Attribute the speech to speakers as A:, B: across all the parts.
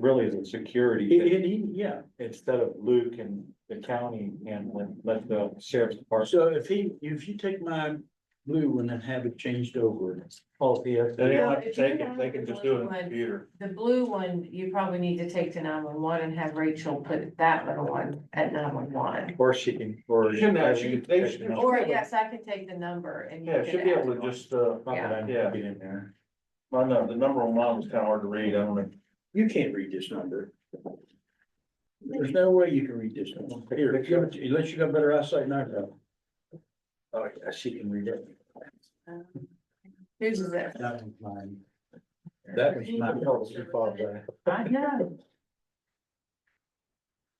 A: really is a security.
B: It,
A: thing.
B: it- he- yeah,
A: Instead of Luke and the county and let- let the sheriff's department.
B: so if he, if you take my blue one and have it changed over.
A: Oh, yes.
C: They don't have to take it, they can just do it on the computer.
D: The blue one, you probably need to take to nine one one and have Rachel put that little one at nine one one.
A: Or she can, or.
C: She can actually- they should-
D: Or yes, I can take the number and. you
C: Yeah,
D: can
C: should be
D: add
C: able
D: it
C: to
D: on.
C: just, uh,
A: Not that I need to get in there.
C: I know, the number on mine was kind of hard to read, I don't know.
B: You can't read this number. There's no way you can read this number. Here, if you- unless you got better eyesight than I do.
A: Oh, yeah, she can read it.
D: Um, Whose is it?
B: That was mine. That was
A: I
B: mine.
A: told her she thought that.
D: I know.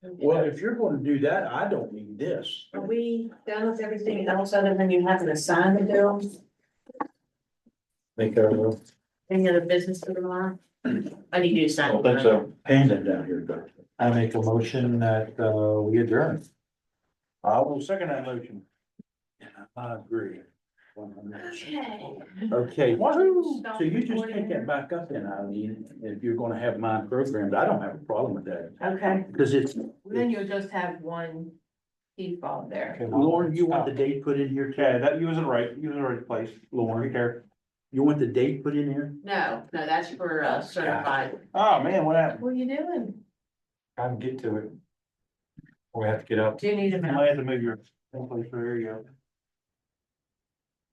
B: Well, if you're gonna do that, I don't need this.
D: Are we done with everything else other than you having to sign the bill?
A: Think I will.
D: Any other business for tomorrow? I need you to
C: I
D: sign.
C: don't think so.
B: Hand it down here, Doug.
E: I make a motion that, uh, we adjourn.
C: I will second that motion.
B: I agree.
D: Okay.
B: Okay,
C: Wahoo!
B: so you just take that back up then, Eileen, if you're gonna have mine programmed, I don't have a problem with that.
D: Okay,
B: Because it's,
D: then you'll just have one key fob there.
B: Lauren, you want the date put in here,
C: Yeah,
B: Ted?
C: that, you was in the right, you was in the right place, Lauren, care.
B: You want the date put in here?
D: No, no, that's for uh, certified.
C: Oh, man, what happened?
D: What are you doing?
A: I can get to it. We have to get up.
D: Do you need a
C: You
D: minute?
C: might have to move your, someplace, there you go.